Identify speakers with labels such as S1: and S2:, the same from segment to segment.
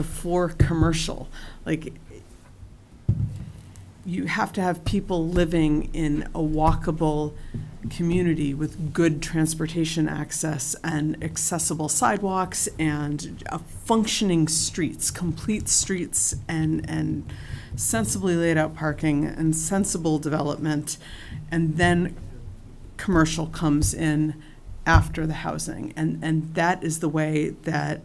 S1: before commercial. Like, you have to have people living in a walkable community with good transportation access and accessible sidewalks and uh, functioning streets, complete streets and, and sensibly laid out parking and sensible development. And then commercial comes in after the housing. And, and that is the way that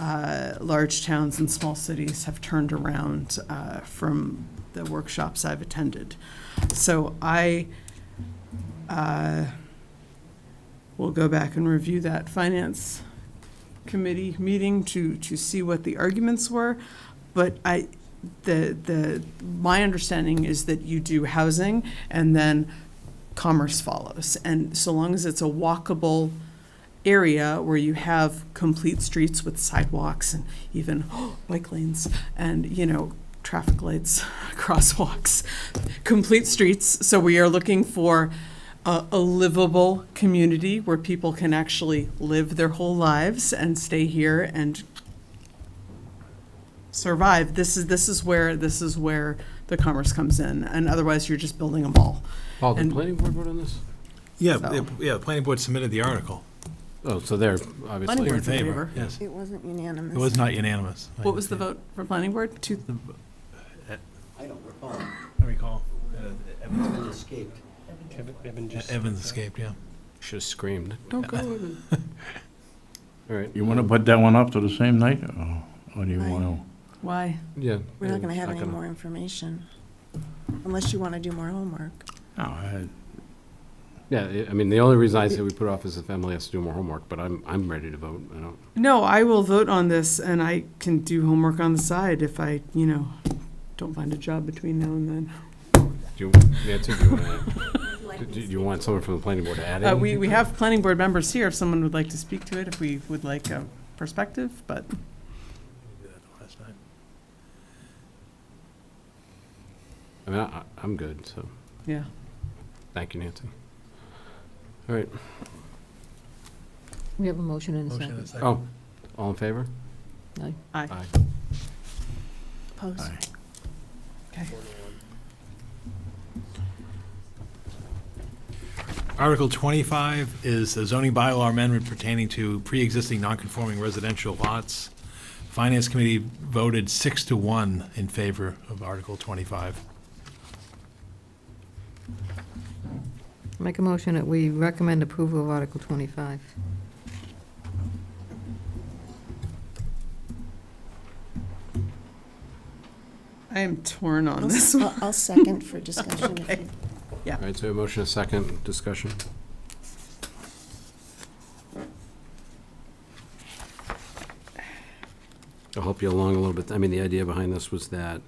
S1: uh, large towns and small cities have turned around uh, from the workshops I've attended. So I uh, will go back and review that finance committee meeting to, to see what the arguments were. But I, the, the, my understanding is that you do housing and then commerce follows. And so long as it's a walkable area where you have complete streets with sidewalks and even bike lanes and, you know, traffic lights, crosswalks, complete streets. So we are looking for a, a livable community where people can actually live their whole lives and stay here and survive. This is, this is where, this is where the commerce comes in. And otherwise, you're just building a mall.
S2: Paul, did
S1: And-
S2: Oh, the planning board vote on this?
S3: Yeah,
S1: So-
S3: the- yeah, the planning board submitted the article.
S2: Oh, so they're
S1: Planning board.
S2: obviously.
S3: They're in
S1: Board's in favor.
S3: favor, yes.
S4: It wasn't
S3: It was
S4: unanimous.
S3: not unanimous.
S1: What was the vote for planning board? Two,
S5: I don't recall.
S3: I recall. Uh, Evans-
S5: It escaped.
S3: Evans escaped, yeah.
S2: Should have screamed, don't go with it. All right,
S6: You want to put that one up to the same night, or- or do you want to?
S1: why?
S2: yeah.
S4: We're not going to
S2: it's
S4: have any
S2: gonna-
S4: more information, unless you want to do more homework.
S6: No, I-
S2: Yeah, I- I mean, the only reason I say we put off is if Emily has to do more homework, but I'm, I'm ready to vote. I don't,
S1: No, I will vote on this and I can do homework on the side if I, you know, don't find a job between now and then.
S2: do you, Nancy, do you want to? Do you want someone from the planning board to add
S1: Uh,
S2: in?
S1: we, we have planning board members here if someone would like to speak to it, if we would like a perspective, but
S3: Last night.
S2: I mean, I, I- I'm good, so,
S1: yeah.
S2: thank you, Nancy. All right,
S7: We have a motion and a
S3: Motion
S7: second.
S3: and a second.
S2: oh, all in favor?
S1: Aye.
S2: Aye.
S4: Post.
S6: Aye.
S1: Okay.
S3: Article 25 is a zoning bylaw amendment pertaining to pre-existing non-conforming residential lots. Finance Committee voted six to one in favor of Article 25.
S7: Make a motion that we recommend approval of Article 25.
S1: I am torn on
S4: I'll
S1: this
S4: s-
S1: one.
S4: I'll I'll second for discussion. if you-
S2: All right, so a motion, a second, discussion. I'll help you along a little bit. I mean, the idea behind this was that,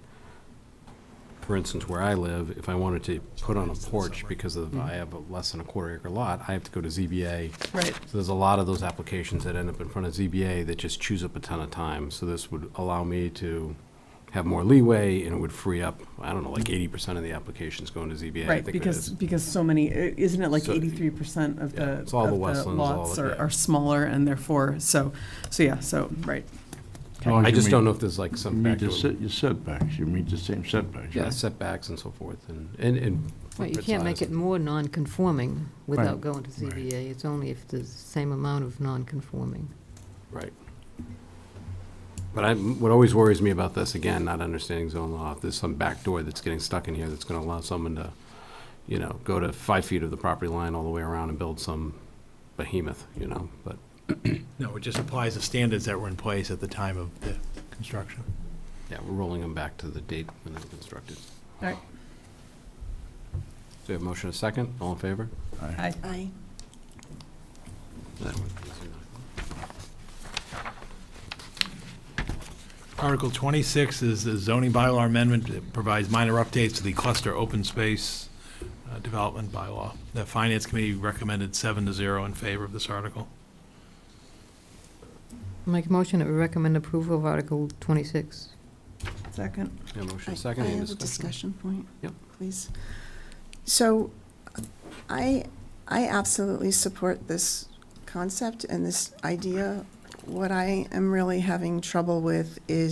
S2: for instance, where I live, if I wanted to put on a porch because of, I have a less than a quarter acre lot, I have to go to ZBA.
S1: Right.
S2: So there's a lot of those applications that end up in front of ZBA that just chews up a ton of time. So this would allow me to have more leeway and it would free up, I don't know, like eighty percent of the applications going to ZBA. I
S1: Right,
S2: think it
S1: because,
S2: is.
S1: because so many, i- isn't it like
S2: So-
S1: eighty-three percent of
S2: Yeah,
S1: the, of
S2: it's
S1: the
S2: all the wetlands, all
S1: lots
S2: of-
S1: are,
S2: yeah.
S1: are smaller and therefore, so, so yeah, so, right.
S6: as long as
S2: I
S6: Oh, you
S2: just don't
S6: meet-
S2: know if there's like some
S6: Meet the
S2: factor,
S6: set- your setbacks, you meet the same setbacks,
S2: yeah,
S6: right?
S2: setbacks and so forth, and, and, and.
S7: Right, you
S2: footprint
S7: can't make
S2: size.
S7: it more non-conforming without
S6: Right.
S7: going to ZBA. It's only if there's the same amount of non-conforming.
S2: Right. But I, what always worries me about this, again, not understanding zone law, if there's some back door that's getting stuck in here that's gonna allow someone to, you know, go to five feet of the property line all the way around and build some behemoth, you know, but,
S3: No, it just applies the standards that were in place at the time of the construction.
S2: yeah, we're rolling them back to the date when they were constructed.
S1: All right,
S2: So we have a motion, a second, all in favor?
S1: aye.
S4: Aye.
S2: That one, easy enough.
S3: Article 26 is the zoning bylaw amendment that provides minor updates to the cluster open space uh, development bylaw. The Finance Committee recommended seven to zero in favor of this article.
S7: Make a motion that we recommend approval of Article 26.
S1: Second,
S2: Yeah, motion,
S4: I
S2: a second,
S4: I
S2: any
S4: have a
S2: discussion?
S4: discussion point.
S2: Yep.
S4: Please. So I, I absolutely support this concept and this idea. What I am really having trouble with is